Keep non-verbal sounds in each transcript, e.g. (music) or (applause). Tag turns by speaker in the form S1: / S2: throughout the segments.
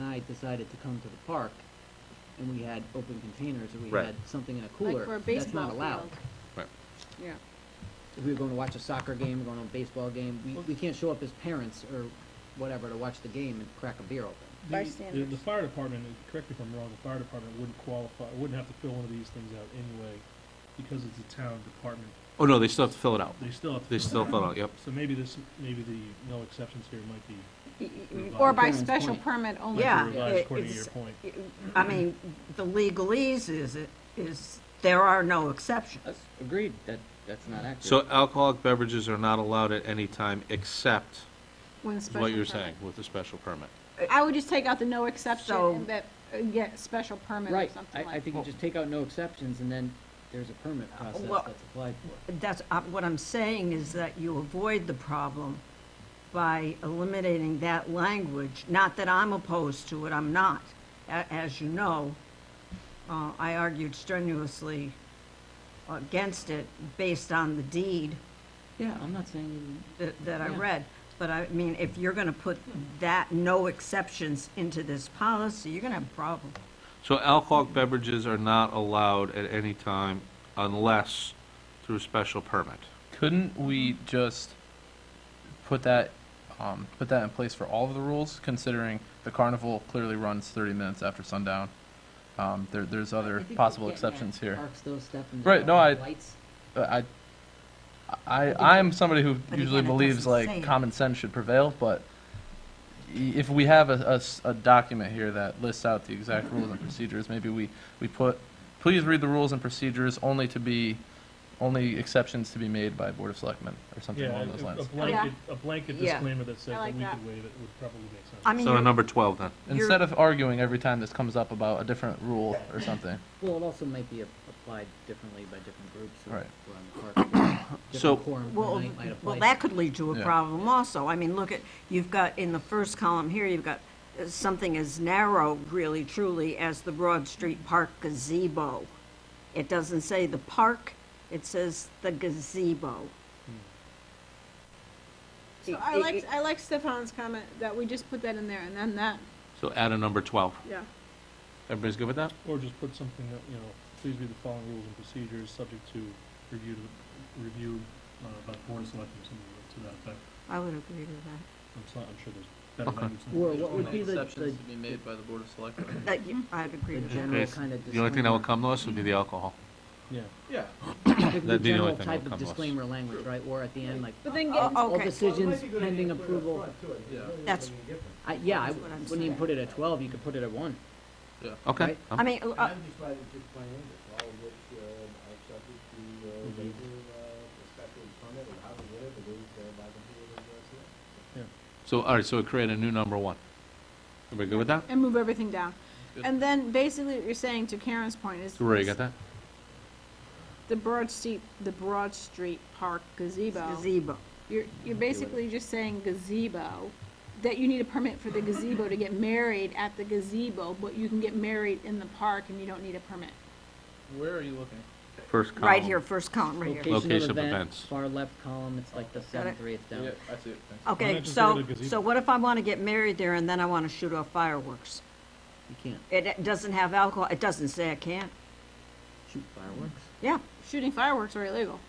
S1: site decided to come to the park and we had open containers or we
S2: Right.
S1: had something in a
S3: Like for a
S1: cooler, that's
S3: baseball
S1: not allowed.
S3: field.
S2: Right.
S3: Yeah.
S1: If we were going to watch a soccer game, going to a baseball game, we, we can't show up as parents or whatever to watch the game and crack a beer open.
S4: The- The, the
S3: Bystanders.
S4: fire department, and correct me if I'm wrong, the fire department wouldn't qualify, wouldn't have to fill one of these things out anyway, because it's a town department,
S2: Oh, no, they still have to fill it out.
S4: they still have to.
S2: They
S4: fill it
S2: still
S4: out.
S2: fill it out, yep.
S4: So maybe this, maybe the no exceptions here might be,
S5: Y- y-
S3: Or by
S1: Parents'
S3: special
S1: point.
S3: permit only.
S5: Yeah,
S4: might be revised
S5: it-
S4: according to your
S5: it's-
S4: point.
S5: y- I mean, the legalese is, it is, there are no exceptions.
S1: agreed, that, that's not accurate.
S2: So alcoholic beverages are not allowed at any time except
S3: When special
S2: what you're
S3: permit.
S2: saying with the special permit.
S3: I would just take out the no exception
S5: So-
S3: and that, uh, get special permit or
S1: Right,
S3: something
S1: I, I
S3: like.
S1: think you just take out no exceptions and then there's a permit process
S5: well-
S1: that's applied for.
S5: That's, uh, what I'm saying is that you avoid the problem by eliminating that language. Not that I'm opposed to it, I'm not. A- As you know, uh, I argued strenuously against it based on the deed
S1: Yeah, I'm not saying,
S5: that, that I
S1: Yeah.
S5: read. But I mean, if you're gonna put that no exceptions into this policy, you're gonna have a problem.
S2: So alcoholic beverages are not allowed at any time unless through special permit.
S6: Couldn't we just put that, um, put that in place for all of the rules, considering the carnival clearly runs thirty minutes after sundown? Um, there, there's other possible exceptions here.
S1: Parks those steps and.
S6: Right, no, I-
S1: Lights.
S6: But I, I, I'm somebody who
S5: But
S6: usually
S5: again, it
S6: believes
S5: doesn't say
S6: like
S5: it.
S6: common sense should prevail, but i- if we have a- a, s- a document here that lists out the exact rules and procedures, maybe we, we put, please read the rules and procedures only to be, only exceptions to be made by Board of Selectmen, or something
S4: Yeah,
S6: along those
S4: a- a
S6: lines.
S4: blanket, a blanket
S5: Yeah.
S4: disclaimer that
S3: I
S4: says that
S3: like
S4: we
S3: that.
S4: could waive it would probably make sense.
S5: I mean,
S2: So
S5: you're-
S2: on number 12 then.
S5: You're-
S6: Instead of arguing every time this comes up about a different rule or something.
S1: Well, it also might be a- applied differently by different groups or
S6: Right.
S1: around the park.
S2: (coughs) So-
S1: Different quorum per
S5: Well,
S1: night might apply.
S5: well, that could lead to a
S6: Yeah.
S5: problem also. I mean, look at, you've got, in the first column here, you've got uh, something as narrow, really truly, as the Broad Street Park gazebo. It doesn't say the park, it says the gazebo.
S4: Hmm.
S3: So I like, I like Stefan's comment that we just put that in there and then that,
S2: So add a number 12.
S3: yeah.
S2: Everybody's good with that?
S4: Or just put something that, you know, please read the following rules and procedures, subject to review, to- review, uh, by the board of selectmen, something to that effect.
S5: I would agree with that.
S4: I'm so- I'm sure there's better
S2: Okay.
S4: language. than
S1: Or
S4: that.
S1: what would be the, the
S6: be made by the Board of Selectmen.
S5: That you- I'd agree
S1: the
S5: with that.
S1: general
S2: Yes.
S1: kind of disclaimer?
S2: The only thing
S1: (coughs)
S2: that would come to us would be the alcohol.
S4: Yeah.
S1: The- The
S2: That'd be the only
S1: general
S2: thing that
S1: type of
S2: would come to us.
S1: disclaimer language, right, or at the end, like,
S3: But then
S5: Oh,
S3: get,
S1: all
S5: Okay.
S1: decisions pending
S7: Uh,
S1: approval.
S5: That's,
S1: I, yeah, I
S5: That's what I'm
S1: wouldn't even
S5: saying.
S1: put it at twelve, you could put it at one.
S2: Okay.
S1: Right.
S2: I'm-
S3: Um,
S5: I mean, uh,
S7: I'm just trying to just plan it, all of which, uh, are subject to, uh,
S4: Mhm.
S7: waiver, uh, special permit or however, whatever it is, uh, by the board of, uh, selectmen.
S2: So, all right, so create a new number one. Everybody good with that?
S3: and move everything down.
S6: Good.
S3: And then basically what you're saying to Karen's point is.
S2: So Rory, you got that?
S3: The Broad Street, the Broad Street Park gazebo.
S5: gazebo.
S3: You're, you're basically just saying gazebo, that you need a permit for the gazebo to get married at the gazebo, but you can get married in the park and you don't need a permit.
S6: Where are you looking?
S2: First column.
S5: Right here, first column, right here.
S1: Location
S2: Location
S1: of
S2: of
S1: event,
S2: events.
S1: far left column, it's like the seventh or eighth down.
S6: I see it.
S4: Why
S5: Okay,
S4: not just go
S5: so,
S4: to gazebo?
S5: so what if I want to get married there and then I want to shoot off fireworks?
S1: You can't
S5: It- It doesn't have alcohol, it doesn't say I can't.
S1: shoot fireworks.
S5: Yeah,
S3: Shooting fireworks are illegal.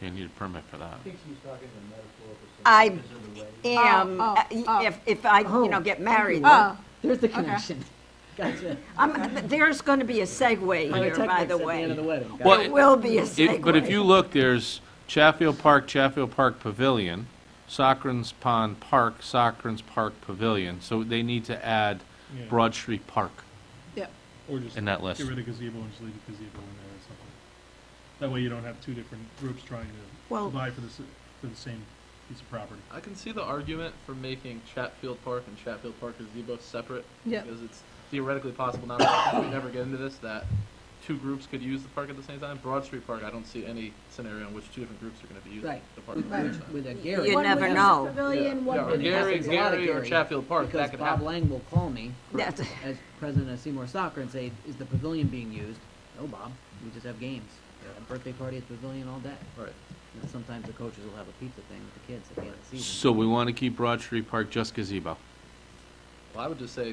S2: You need a permit for that.
S7: I think she's talking in metaphorical sense.
S5: I
S7: because of the way-
S5: am,
S3: Oh,
S5: uh,
S3: oh, oh.
S5: if, if I, you know,
S1: Oh,
S5: get married,
S3: Oh,
S1: There's the connection. (laughs) Gotcha.
S5: I'm, there's gonna be a segue here, by
S1: Pyrotechnics
S5: the
S1: at the end of the
S5: way.
S1: wedding. Got
S2: Well,
S1: it.
S5: There will be a
S2: If-
S5: segue.
S2: But if you look, there's Chatfield Park, Chatfield Park Pavilion, Socrans Pond Park, Socrans Park Pavilion. So they need to add
S4: Yeah.
S2: Broad Street Park.
S3: yeah.
S4: Or just.
S2: in that list.
S4: Get rid of gazebo and just leave the gazebo in there or something. That way you don't have two different groups trying
S5: Well-
S4: to vie for the, s- for the same piece of property.
S8: I can see the argument for making Chatfield Park and Chatfield Park gazebo separate.
S3: Yep.
S8: Because it's theoretically possible, not that we never get into this, that two groups could use the park at the same time. Broad Street Park, I don't see any scenario in which two different groups are gonna be using
S1: Right.
S8: the park at
S1: With,
S8: the same
S1: with-
S8: time.
S1: with a Gary.
S5: You
S3: One
S5: never
S3: would have
S5: know.
S3: Pavilion, one
S8: Yeah, or
S3: would have-
S8: Gary,
S1: It's a lot of
S8: Gary or
S1: Gary,
S8: Chatfield Park,
S1: Because
S8: that could
S1: Bob
S8: happen.
S1: Lang will call me
S5: That's-
S1: as president of Seymour Soccer and say, is the pavilion being used? No, Bob, we just have games. We have a Birthday party at the pavilion all day.
S8: Right.
S1: You know, Sometimes the coaches will have a pizza thing with the kids at the end of the season.
S2: So we want to keep Broad Street Park just gazebo.
S8: Well, I would just say